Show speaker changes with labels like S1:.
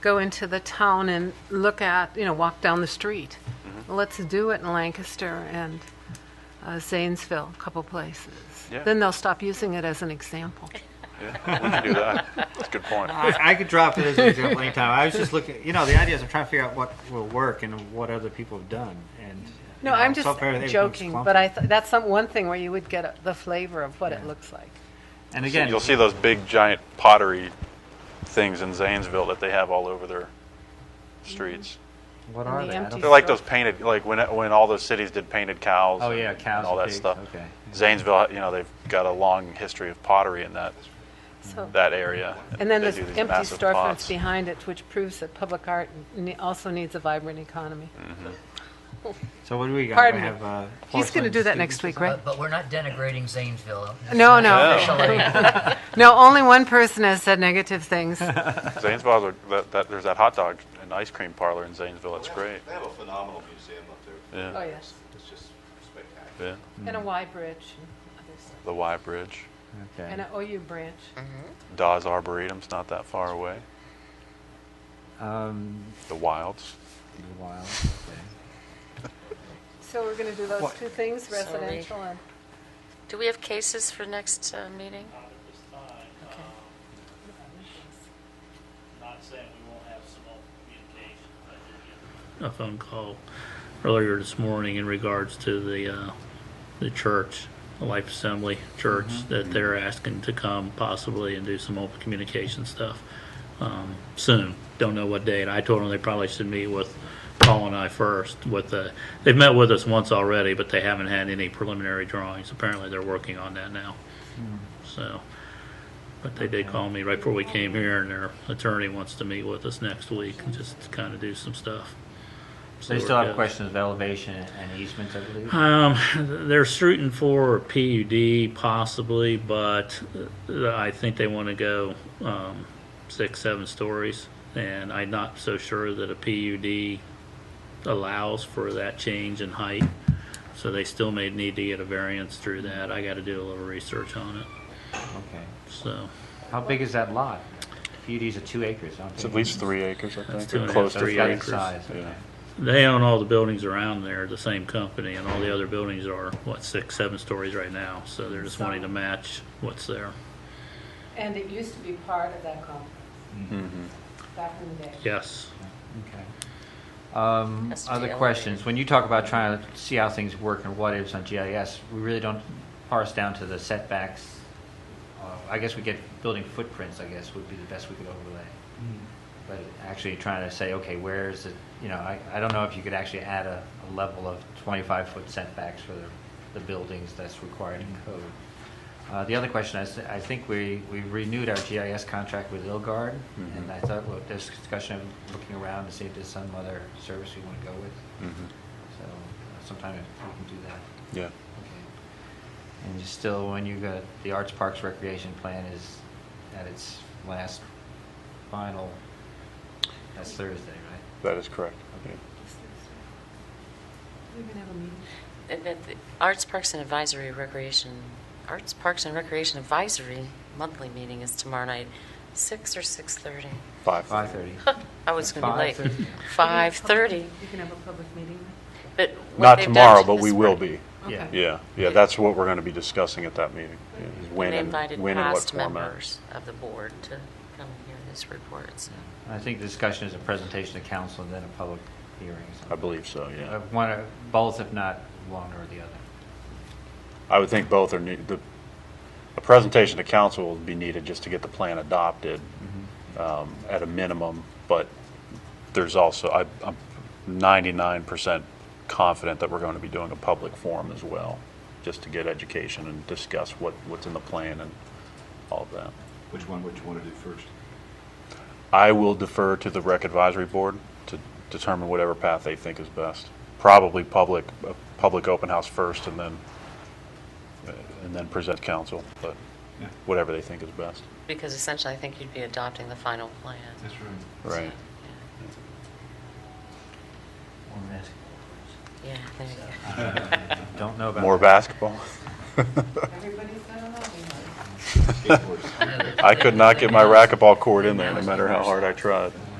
S1: go into the town and look at, you know, walk down the street.
S2: Mm-hmm.
S1: Let's do it in Lancaster and uh, Zanesville, a couple places.
S2: Yeah.
S1: Then they'll stop using it as an example.
S2: Yeah, we can do that. That's a good point.
S1: Uh-huh.
S3: I, I could drop it as an example anytime. I was just looking, you know, the idea is I'm trying to figure out what will work and what other people have done. And
S1: No,
S3: you know,
S1: I'm
S3: so
S1: just
S3: far everything's
S1: joking,
S3: clunky.
S1: but I, th- that's some, one thing where you would get a- the flavor of what it
S3: Yeah.
S1: looks like.
S3: and again,
S2: You'll see those big giant pottery things in Zanesville that they have all over their streets.
S1: Mm-hmm.
S3: what
S1: and
S3: are
S1: the
S3: they? I don't-
S1: empty-
S2: They're like those painted, like when when all those cities did painted cows.
S3: Oh, yeah,
S2: and
S3: cows
S2: all
S3: and
S2: that
S3: pigs,
S2: stuff.
S3: okay.
S2: Zanesville, you know, they've got a long history of pottery in that
S1: So,
S2: that area.
S1: and then
S2: they
S1: there's
S2: do these
S1: empty
S2: massive
S1: storefronts
S2: pots.
S1: behind it, which proves that public art ne- also needs a vibrant economy.
S2: Mm.
S3: So what do we got?
S1: Pardon
S3: we
S1: me.
S3: have, uh,
S1: He's going to do
S3: porcelain
S1: that
S3: students
S1: next
S3: or
S1: week,
S3: something?
S1: right?
S4: But, but we're not denigrating Zanesville.
S1: No, no.
S4: Officially,
S2: Oh.
S1: No, only one person has said negative things.
S2: Zanesville, has a- that, that, there's that hot dog and ice cream parlor in Zanesville. It's
S5: They have-
S2: great.
S5: They have a phenomenal museum up there.
S2: Yeah,
S1: Oh, yes.
S5: It's just spectacular.
S2: yeah.
S1: And a Y branch and other stuff.
S2: The Y Bridge,
S3: Okay.
S1: And an OU branch.
S2: Dawes Arboretum's not that far away.
S3: Um,
S2: The Wilds.
S3: the wild. Okay.
S1: So we're going to do those
S3: What?
S1: two things,
S6: Sorry.
S1: residential and,
S6: Do we have cases for next uh, meeting? Okay.
S7: Um, Not saying we won't have some open communication, but I did get a phone call earlier this morning in regards to the, uh, the church, the Life Assembly
S3: Mm-hmm.
S7: Church, that they're asking to come possibly and do some open communication stuff, um, soon. Don't know what date. I told them they probably should meet with Paul and I first with the, they've met with us once already, but they haven't had any preliminary drawings. Apparently they're working on that now.
S3: Mm.
S7: So, but they did call me right before we came here, and their attorney wants to meet with us next week and just kind of do some stuff.
S3: So they
S7: See
S3: still
S7: where it
S3: have
S7: goes.
S3: questions of elevation and easements, I believe.
S7: Um, they're shooting for a PUD possibly, but uh, I think they want to go um, six, seven stories, and I'm not so sure that a PUD allows for that change in height. So they still may need to get a variance through that. I got to do a little research on it.
S3: Okay.
S7: So
S3: How big is that lot? PUDs are two acres. aren't
S2: It's
S3: they?
S2: at least three acres, I think.
S7: two and a
S2: Close
S7: half,
S2: to
S3: So it's
S7: three
S2: three.
S3: about the
S7: acres.
S3: size,
S2: Yeah.
S3: okay.
S7: They own all the buildings around there, the same company, and all the other buildings are, what, six, seven stories right now, so they're just wanting to match what's there.
S1: and it used to be part of that complex back in the day.
S7: Yes.
S3: Okay. Um,
S6: Has to be
S3: Other
S6: elevated.
S3: questions? When you talk about trying to see how things work and what ifs on GIS, we really don't parse down to the setbacks. Uh, I guess we get building footprints, I guess, would be the best we could overlay. But actually trying to say, okay, where is it, you know, I, I don't know if you could actually add a, a level of 25-foot setbacks for the, the buildings that's required in code. Uh, The other question, I, s- I think we, we renewed our GIS contract with Ilgard, and I thought, well, there's discussion of looking around to see if there's some other service we want to go with. So uh, sometime we can do that.
S2: Mm-hmm. Yeah.
S3: Okay. And you still, when you got, the Arts Parks Recreation Plan is at its last final, that's Thursday, right?
S2: That is correct.
S1: We're going to have a meeting.
S6: And then the Arts, Parks, and Advisory Recreation, Arts, Parks, and Recreation Advisory monthly meeting is tomorrow night, six or 6:30?
S2: Five.
S3: 5:30.
S6: I was going to be late.
S3: 5:30.
S6: 5:30.
S1: You can have a public meeting.
S6: But what
S2: Not
S6: they've done
S2: tomorrow, but
S6: this
S2: we will
S6: spring-
S2: be.
S3: Yeah.
S2: Yeah, yeah, that's what we're going to be discussing at that meeting. yeah, is When
S6: They
S2: and,
S6: invited
S2: when and what
S6: past
S2: format.
S6: members of the board to come and hear this report, so.
S3: I think the discussion is a presentation to council and then a public hearing. Uh,
S2: I believe so, yeah.
S3: One, or- both, if not one or the other.
S2: I would think both are, need- the, a presentation to council will be needed just to get the plan adopted
S5: Mm-hmm.
S2: um, at a minimum, but there's also, I- I'm 99% confident that we're going to be doing a public forum as well, just to get education and discuss what, what's in the plan and all of that.
S5: Which one would you want to do first?
S2: I will defer to the rec advisory board to determine whatever path they think is best. Probably public, a public open house first and then, uh, and then present council, but whatever they think is best.
S6: Because essentially, I think you'd be adopting the final plan.
S2: Right.
S6: Yeah, there you go.
S3: Don't know about.
S2: More basketball?
S1: Everybody's got a lobby, huh?
S5: Skateboards.
S2: I could not get my racquetball court in there, no matter how hard I tried.